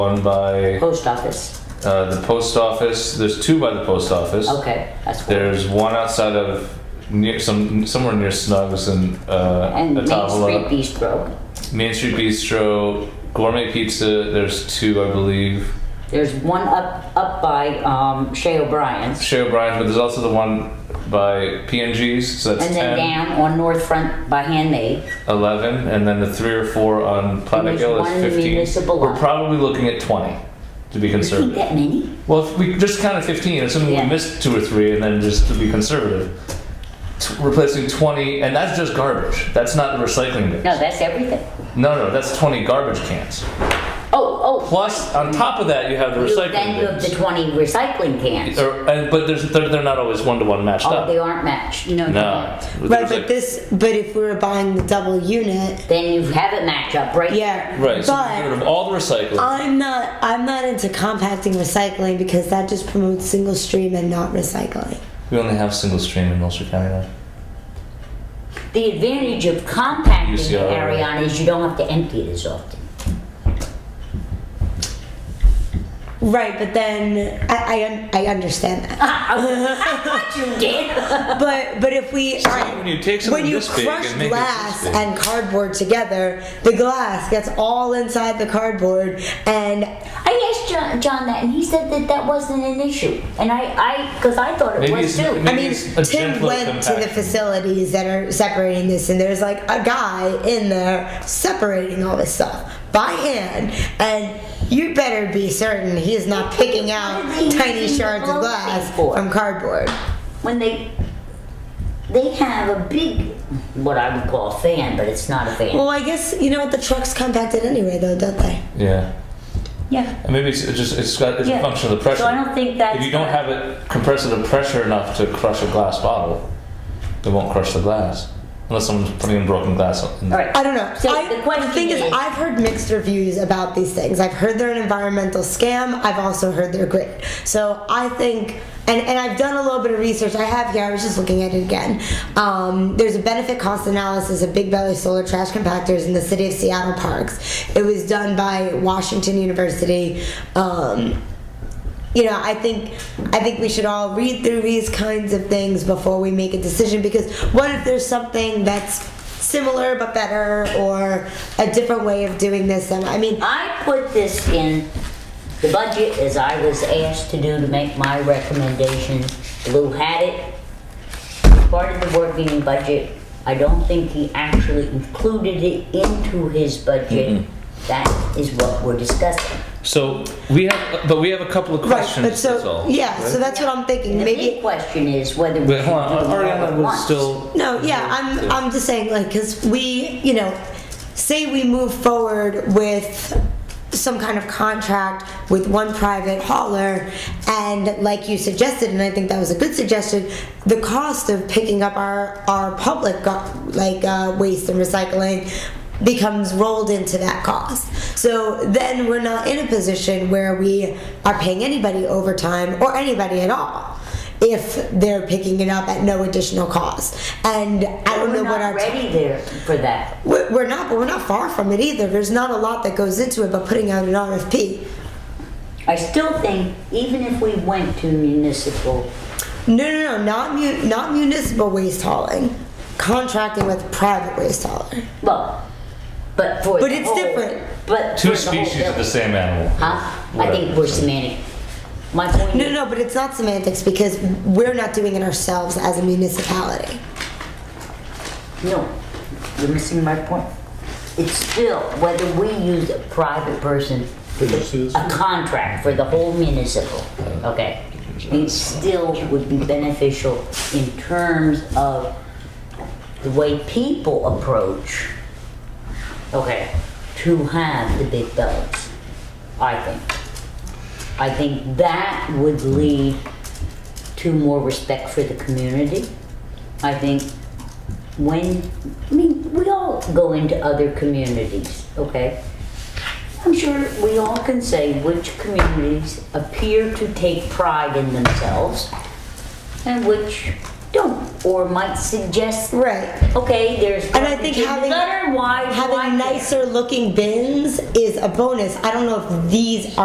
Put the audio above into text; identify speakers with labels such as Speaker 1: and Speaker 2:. Speaker 1: One by
Speaker 2: Post office.
Speaker 1: uh, the post office. There's two by the post office.
Speaker 2: Okay, that's one.
Speaker 1: There's one outside of near some somewhere near Snugs and uh,
Speaker 2: And Main Street
Speaker 1: Atavola.
Speaker 2: Bistro.
Speaker 1: Main Street Bistro, Gourmet Pizza. There's two, I believe.
Speaker 2: There's one up up by um, Shea O'Brien's,
Speaker 1: Shea O'Brien's, but there's also the one by PNG's. So that's
Speaker 2: and
Speaker 1: 10,
Speaker 2: then down on North Front by Handmade.
Speaker 1: 11, and then the three or four on Platic
Speaker 2: there's
Speaker 1: Hill
Speaker 2: one
Speaker 1: is 15.
Speaker 2: municipal
Speaker 1: We're
Speaker 2: lot.
Speaker 1: probably looking at 20 to be
Speaker 2: You
Speaker 1: conservative.
Speaker 2: that many?
Speaker 1: Well, if we just counted 15, assuming
Speaker 2: Yeah.
Speaker 1: we missed two or three, and then just to be conservative, t- replacing 20, and that's just garbage. That's not the recycling bin.
Speaker 2: No, that's everything.
Speaker 1: No, no, that's 20 garbage cans.
Speaker 2: Oh, oh.
Speaker 1: Plus, on top of that, you have the
Speaker 2: you- then
Speaker 1: recycling
Speaker 2: you have the
Speaker 1: bins.
Speaker 2: twenty recycling cans.
Speaker 1: Or, and, but there's, they're, they're not always one to one matched
Speaker 2: Oh,
Speaker 1: up.
Speaker 2: they aren't matched. No.
Speaker 1: no.
Speaker 3: Right,
Speaker 1: There's
Speaker 3: but
Speaker 1: like-
Speaker 3: this, but if we were buying the double unit,
Speaker 2: Then you have it match up, right?
Speaker 3: yeah.
Speaker 1: Right, so
Speaker 3: But
Speaker 1: get rid of all the recycling.
Speaker 3: I'm not, I'm not into compacting recycling because that just promotes single stream and not recycling.
Speaker 1: we only have single stream in Ulster County now.
Speaker 2: The advantage of compacting it,
Speaker 1: UCR.
Speaker 2: Ariana, is you don't have to empty it as often.
Speaker 3: Right, but then I, I, un- I understand that.
Speaker 2: You did.
Speaker 3: But but if we
Speaker 1: when you take something
Speaker 3: when you
Speaker 1: this big and
Speaker 3: crush
Speaker 1: make it this
Speaker 3: glass
Speaker 1: big.
Speaker 3: and cardboard together, the glass gets all inside the cardboard, and
Speaker 2: I asked John, John that, and he said that that wasn't an issue. And I, I, because I thought it
Speaker 1: Maybe
Speaker 2: was
Speaker 1: it's-
Speaker 2: too.
Speaker 1: maybe-
Speaker 3: I mean,
Speaker 1: It's a
Speaker 3: Tim
Speaker 1: gentler
Speaker 3: went to the
Speaker 1: compaction.
Speaker 3: facilities that are separating this, and there's like a guy in there separating all this stuff by hand, and you better be certain he is not picking out tiny shards of glass from cardboard.
Speaker 2: when they they have a big what I would call a fan, but it's not a fan.
Speaker 3: Well, I guess you know what the trucks compacted anyway, though, don't they?
Speaker 1: Yeah.
Speaker 2: yeah.
Speaker 1: And maybe it's it's just it's got it's
Speaker 2: Yeah.
Speaker 1: a function of the pressure.
Speaker 2: So I don't think that's
Speaker 1: if you don't
Speaker 2: gonna-
Speaker 1: have it compressed to the pressure enough to crush a glass bottle, it won't crush the glass unless someone's putting in broken glass. In
Speaker 2: All right.
Speaker 3: I don't know.
Speaker 2: So
Speaker 3: I,
Speaker 2: the question
Speaker 3: thing is,
Speaker 2: is-
Speaker 3: I've heard mixed reviews about these things. I've heard they're an environmental scam. I've also heard they're great. So I think, and, and I've done a little bit of research. I have here. I was just looking at it again. Um, there's a benefit cost analysis of Big Belly solar trash compactors in the city of Seattle parks. It was done by Washington University. Um, you know, I think I think we should all read through these kinds of things before we make a decision because what if there's something that's similar but better or a different way of doing this and I mean
Speaker 2: I put this in the budget as I was asked to do to make my recommendation. Lou had it. Part of the working budget. I don't think he actually included it into his budget.
Speaker 1: Mm-hmm.
Speaker 2: That is what we're discussing.
Speaker 1: So we have, but we have a couple of
Speaker 3: right
Speaker 1: questions.
Speaker 3: but
Speaker 1: that's
Speaker 3: so
Speaker 1: all.
Speaker 3: yeah so that's what I'm thinking
Speaker 2: The
Speaker 3: maybe
Speaker 2: big question is whether we
Speaker 1: But
Speaker 2: should
Speaker 1: hold on,
Speaker 2: do them all
Speaker 1: Ariana
Speaker 2: at
Speaker 1: was
Speaker 2: once.
Speaker 1: still.
Speaker 3: No, yeah, I'm, I'm just saying, like, because we, you know, say we move forward with some kind of contract with one private hauler, and like you suggested, and I think that was a good suggestion, the cost of picking up our, our public, gar- like, uh, waste and recycling becomes rolled into that cost. So then we're not in a position where we are paying anybody overtime or anybody at all if they're picking it up at no additional cost. And I don't know
Speaker 2: We're
Speaker 3: what
Speaker 2: not
Speaker 3: our
Speaker 2: ready there for that.
Speaker 3: we're we're not, but we're not far from it either. There's not a lot that goes into it, but putting out an RFP.
Speaker 2: I still think even if we went to municipal,
Speaker 3: No, no, no, not mu- not municipal waste hauling, contracting with private waste hauler.
Speaker 2: well, but for
Speaker 3: But
Speaker 2: the
Speaker 3: it's
Speaker 2: whole-
Speaker 3: different.
Speaker 2: But
Speaker 1: Two
Speaker 2: for the whole
Speaker 1: species of the
Speaker 2: village.
Speaker 1: same animal.
Speaker 2: Huh? I think we're semantic. My point.
Speaker 3: No,
Speaker 2: is-
Speaker 3: no, but it's not semantics because we're not doing it ourselves as a municipality.
Speaker 2: No, you're missing my point. It's still whether we use a private person for the, Uh, a contract for the whole municipal, okay? It still would be beneficial in terms of the way people approach, okay, to have the big bellies, I think. I think that would lead to more respect for the community. I think when, I mean, we all go into other communities, okay? I'm sure we all can say which communities appear to take pride in themselves and which don't. or might suggest,
Speaker 3: Right.
Speaker 2: okay, there's
Speaker 3: And I
Speaker 2: garbage
Speaker 3: think
Speaker 2: in the
Speaker 3: having
Speaker 2: gutter, why, why
Speaker 3: having
Speaker 2: there?
Speaker 3: nicer looking bins is a bonus. I don't know if these are.